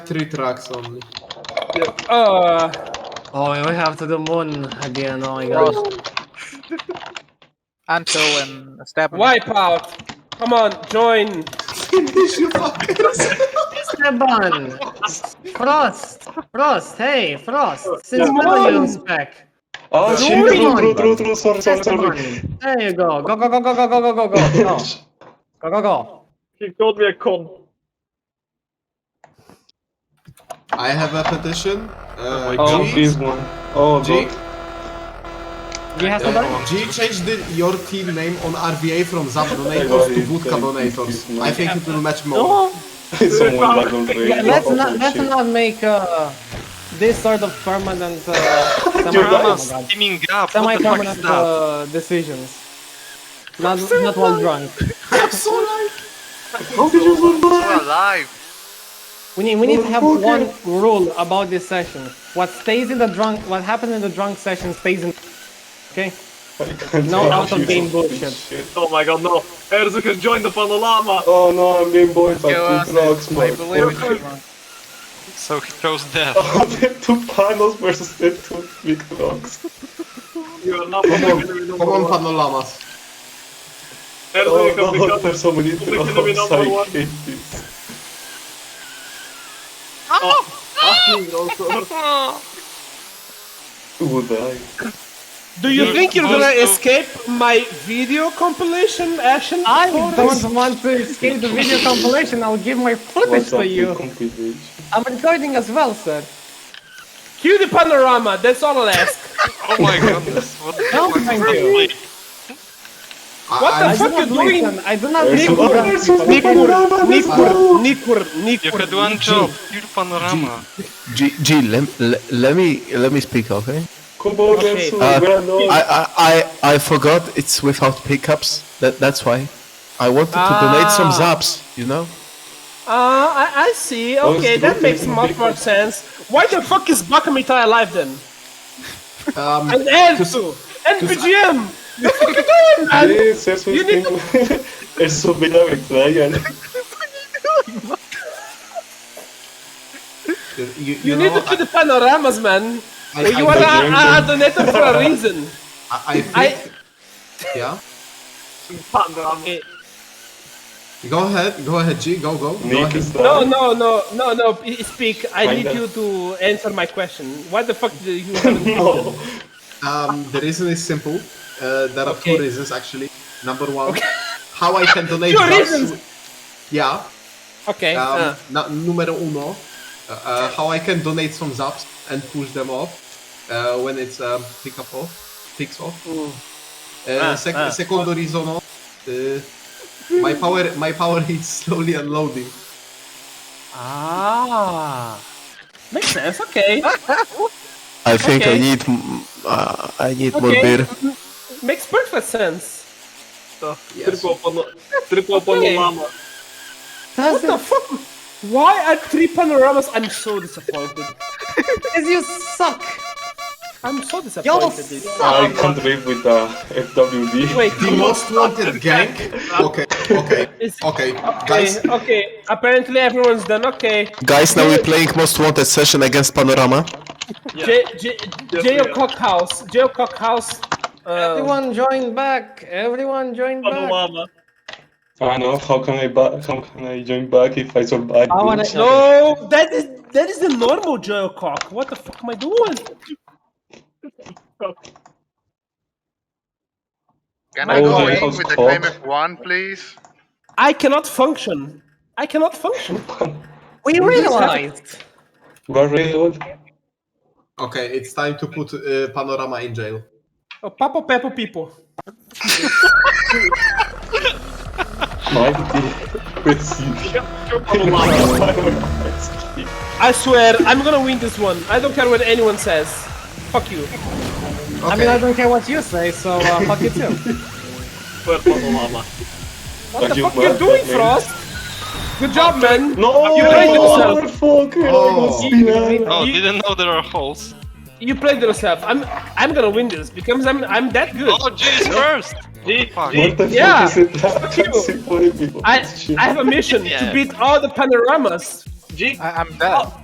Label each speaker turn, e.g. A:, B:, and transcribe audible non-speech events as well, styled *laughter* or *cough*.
A: three tracks only.
B: Uh,
C: Oh, we have to the moon again. Oh my god.
D: Well, Until and step.
B: wipe out. Come on, join.
A: Finish you fuckers!
C: Esteban! Frost! Frost! Hey, Frost! Since
B: Come
C: when are you
B: on.
C: back?
E: Oh,
C: Zoom
E: shit, true,
C: on.
E: true, true, true, sorry, sorry,
C: Esteban!
E: sorry.
C: There you go. Go, go, go, go, go, go, go, go, go. Go, go, go, go.
F: He called me a con.
A: I have a petition. Uh,
E: Oh,
A: G,
E: this one. Oh,
A: G,
E: God.
C: Do you have
A: uh,
C: somebody?
A: G changed the, your team name on RVA from Zap Donators to Vodka Donators. I think it will match more.
E: Someone bad already.
C: Yeah, let's
E: Oh,
C: not let's
E: shit.
C: not make uh, this sort of permanent
G: *laughs*
C: uh, semi
E: that's-
C: permanent,
G: Teaming up.
C: semi
G: What the fuck is
C: permanent
G: that?
C: uh, decisions. Not not while drunk.
E: How did you zoom
G: Still
E: back?
G: alive.
C: We need we need to have one
E: Motherfucker.
C: rule *laughs* about this session. What stays in the drunk what happens in the drunk session stays in Okay? No out of game bullshit.
F: Oh my god, no. Erzu has joined the panorama.
E: Oh no, I'm being boycotted.
D: Go
E: It rocks,
D: I
E: man.
D: believe in you, man.
G: So he chose death.
E: Oh, *laughs* the two panels versus the two big rocks.
F: You are not
A: Come on,
F: public enemy
A: come
F: number
A: on,
F: one.
A: Panolamas.
F: Erzu
E: Oh
F: you have
E: no,
F: become.
E: there's so many
F: Public enemy
E: rocks. I
F: number one.
E: hate this. Oh,
A: Asking also.
E: Would I?
B: Do you
G: You're
B: think you're gonna
G: supposed to-
B: escape my video compilation action?
C: I
B: Forrest?
C: don't want to escape the *laughs* video compilation, I'll give my footage
E: What's up
C: to
E: with
C: you.
E: compilation?
C: I'm recording as well, sir.
B: Cue the panorama. That's all I'll ask.
G: Oh my goodness. What the
C: No,
G: fuck is
C: thank
G: that?
C: you.
G: Like,
B: What the
C: I
B: fuck
C: do not
B: you doing?
C: listen. I do not
E: There's
C: listen.
E: some- Oh, there's some big rocks.
B: Nikur, Nikur,
G: You
B: Nikur.
G: had one job. Your panorama.
H: G, G let, let me let me speak, okay?
E: Kubo versus Granola.
H: I, I, I I forgot it's without pickups. That that's why I wanted to donate some
B: Ah.
H: zaps. You know,
B: Ah, I, I see.
E: Oh,
B: Okay,
E: it's
B: that
E: good.
B: makes much more sense. Why the fuck is Bakamita alive then?
A: Um,
B: And Erzu! And BGM!
E: Yes, that's what
B: You need
E: people- There's so many of Ryan.
A: you, you,
B: You
A: know,
B: need to do the panoramas, man.
A: I, I,
B: You are a,
A: I,
B: a a donator for a reason.
A: I think,
B: I-
A: yeah.
B: Okay.
A: Go ahead, go ahead, G, go, go. go
E: Nick
A: ahead.
E: is
B: No,
E: down.
B: no, no, no, no, p- speak. I
E: Find
B: need
E: out.
B: you to answer my question. Why the fuck do you haven't
A: *laughs*
E: No.
A: Um, the reason is simple. Uh, there are two
B: Okay.
A: reasons actually. Number one, *laughs* how I
B: *laughs*
A: can donate.
B: Two
A: drugs.
B: reasons.
A: Yeah.
B: Okay.
A: Um,
B: uh,
A: na- numero uno, uh, uh, how I can donate some zaps and push them off uh, when it's um, pick up off, ticks off. Uh,
B: Ah,
A: sec-
B: ah.
A: Secondo reason, uh, my power my power *laughs* is slowly unloading.
B: ah. Makes sense. Okay.
H: I think
B: Okay.
H: I need m- uh, I need more
B: Okay.
H: beer.
B: Makes perfect sense.
A: Yes.
F: Triple, pano- triple panorama.
B: What the fuck? Why are three panoramas? I'm so disappointed.
C: Because you suck.
B: I'm so
C: Y'all
B: disappointed. dude.
E: I
C: suck.
E: can't live with the FWD.
B: Wait.
A: The most wanted
B: *laughs*
A: gang. Okay, okay,
B: Is-
A: okay, guys.
B: Okay, okay. Apparently everyone's done. Okay.
H: Guys, now we're playing most wanted session against Panorama.
B: J J Jail
F: yeah.
B: Cockhouse. Jail Cockhouse. Uh,
C: Everyone join back. Everyone join back.
F: Panorama.
E: I know, how can I ba- how can I join back if I survive?
C: I wanna-
E: this?
B: no, that is that is the normal jail cock. What the fuck am I doing?
G: Can
E: I Oh, go
G: I go
E: that in
G: in
E: was with
G: with the
E: the hot.
G: climate
E: climate
G: one, please?
B: I cannot function. I cannot function.
C: We realized.
E: We're really old.
A: Okay, it's time to put uh, Panorama in jail.
B: Oh, Papo Peppo people.
E: Mighty. Receive.
B: I swear, I'm gonna win this one. I don't care what anyone says. Fuck you.
C: I mean, I
A: Okay,
C: don't care what you say, so uh, fuck you too.
F: Triple panorama.
B: What
E: Are
B: the
E: you
B: fuck you
E: mad,
B: doing,
E: man?
B: Frost? Good job, man.
E: No,
B: You played yourself.
E: motherfucker! I
A: Oh.
E: was behind.
G: Oh,
B: You-
G: didn't know there are holes.
B: You played yourself. I'm I'm gonna win this because I'm I'm that good.
G: Oh, G is first. Fuck.
E: What the
B: Yeah.
E: fuck is it? That's important people.
B: I
E: Shit.
B: I have a mission
G: Yeah.
B: to beat all the panoramas.
D: I- I'm dead.